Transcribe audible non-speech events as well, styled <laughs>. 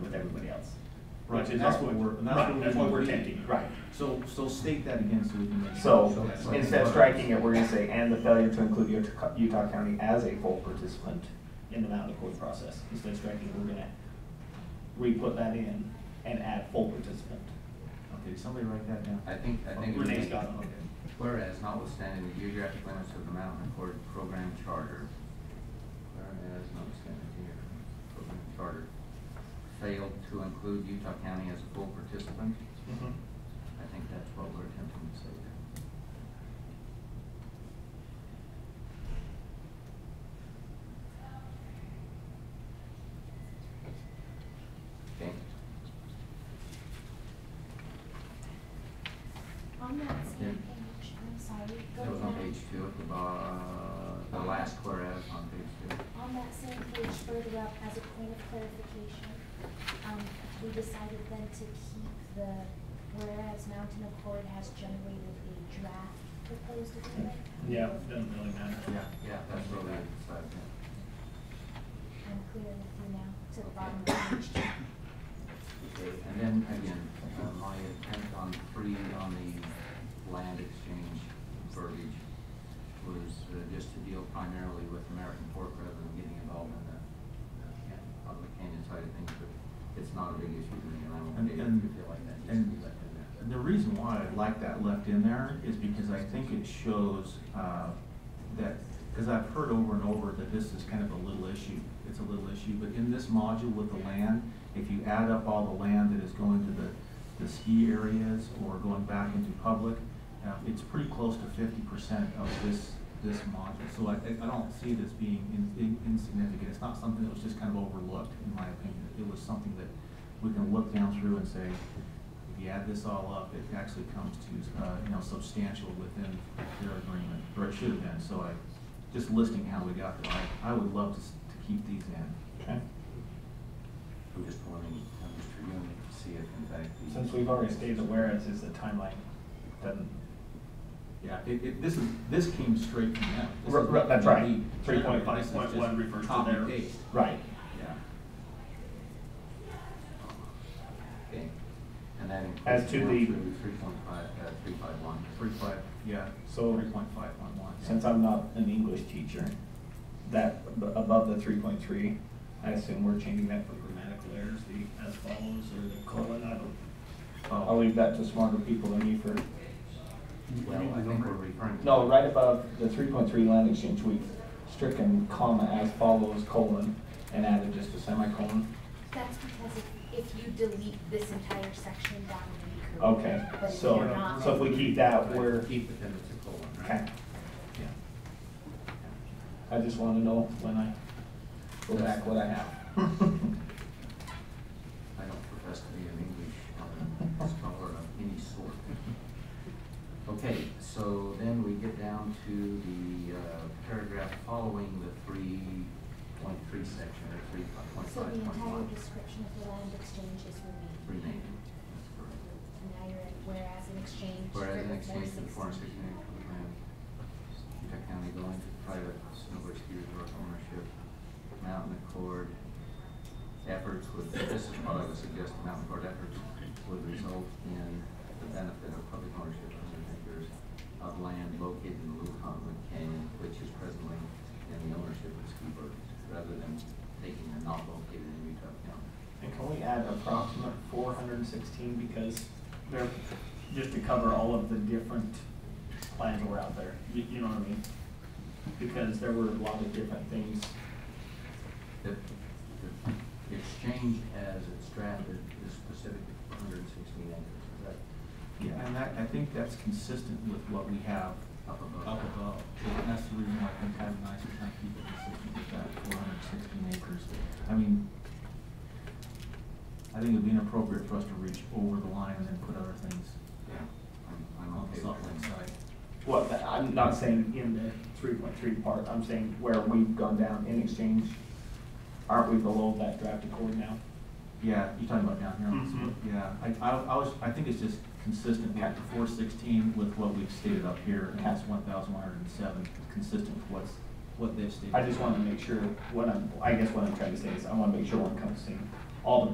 Right, which is and that's our what budget. we're- and that's Right, what that's we what we're believe. tempting, right. So, so state that again so we can make. So, sure. instead of striking it, we're gonna say, and the failure to include Utah Utah County as a full participant. in the Mountain Accord process. Instead of striking, we're gonna re-put that in and add full participant. Okay, somebody write that down. I think, I think. it would Renee's be- got it, okay. Whereas notwithstanding the geographic limits of the Mountain Accord Program Charter, whereas notwithstanding the geographic program charter, failed to include Utah County as a full participant, Mm-hmm. I think that's what we're attempting to say there. Okay, On that Yeah. same page, I'm sorry, go that was on down. page two at the, bo- the last whereas on page two. On that same page further up, as a point of clarification, um, we decided then to keep the, whereas Mountain Accord has generated a draft proposed agreement. Yeah, doesn't really matter. Yeah, yeah, that's what we decided, yeah. I'm clear with you now, to the bottom of page two. Okay, And then again, uh, my attempt on three on the land exchange verbiage was uh, just to deal primarily with American Fork rather than getting involved in the, the can- on the canyon side of things, but it's not a big issue to me, and I'm And- okay if you and- feel like that needs to be And left in there. the reason why I like that left in there is because I think it shows uh, that, because I've heard over and over that this is kind of a little issue. It's a little issue, but in this module with the land, if you add up all the land that is going to the, the ski areas or going back into public, uh, it's pretty close to fifty percent of this, this module. So I, I don't see this being in- in- insignificant. It's not something that was just kind of overlooked, in my opinion. It was something that we can look down through and say, if you add this all up, it actually comes to, uh, you know, substantial within their agreement, or it should have been, so I, just listing how we got there, I, I would love to, s- to keep these in. Okay. I'm just wanting, I'm just trying to see if in fact the. Since we've already stated the whereas is the timeline, doesn't. Yeah, it, it, this is, this came straight from them. This Ru- is ru- what that's we right. need. 3.5.1 This is just refers to copy theirs. paste. Right. Yeah. Okay, and that includes. As to the- Three point five, uh, three five one. Three five, yeah, So- three point five one one. Since I'm not an English teacher, that ab- above the three point three, I assume we're changing that for grammatical errors, the as follows or the colon, I don't. I'll leave that to smarter people than me for, Well, I think we're referring to. no, right above the three point three land exchange, we've stricken comma as follows colon and added just a semicolon. That's because if, if you delete this entire section, that would be Okay, correct. but if so, you're not- so if we keep that, we're, Keep it, then it's a colon, right? okay. Yeah. I just want to know when I go back what I have. <laughs> I don't profess to be an English um, scholar of any sort. Okay, so then we get down to the uh, paragraph following the three point three section, or three point So five the point entire one. description of the land exchange is removed. Remaining, that's correct. And now you're at whereas in exchange. Whereas in for exchange for $4.60. foreign sixty acres of land, Utah County going to private snowboard ski resort ownership, Mountain Accord efforts would, this is what I would suggest, Mountain Accord efforts would result in the benefit of public ownership of hundred acres of land located in the Luton Canyon, which is presently in the ownership of Ski Bird, rather than taking the not located in Utah County. And can we add approximate four hundred and sixteen because They're, just to cover all of the different plans that were out there, you, you know what I mean? Because there were a lot of different things. The, the exchange as it's drafted is specific to hundred and sixteen acres, is that Yeah, and that, I think that's consistent with what we have up above? up above. And that's the reason why I think having nice is not keep it consistent with that four hundred sixteen acres. I mean, I think it'd be inappropriate for us to reach over the line and then put other things Yeah, I'm, I'm on the okay Salt with Lake that. side. Well, th- I'm not saying in the three point three part, I'm saying where we've gone down in exchange, aren't we below that draft accord now? Yeah, you're talking about down here on this, yeah, I, I, I was, I think it's just consistent with the four sixteen with what we've stated up here, and that's one thousand one hundred and seven, consistent with what's, what they've stated. I just wanna make sure, what I'm, I guess what I'm trying to say is, I wanna make sure we're encompassing all the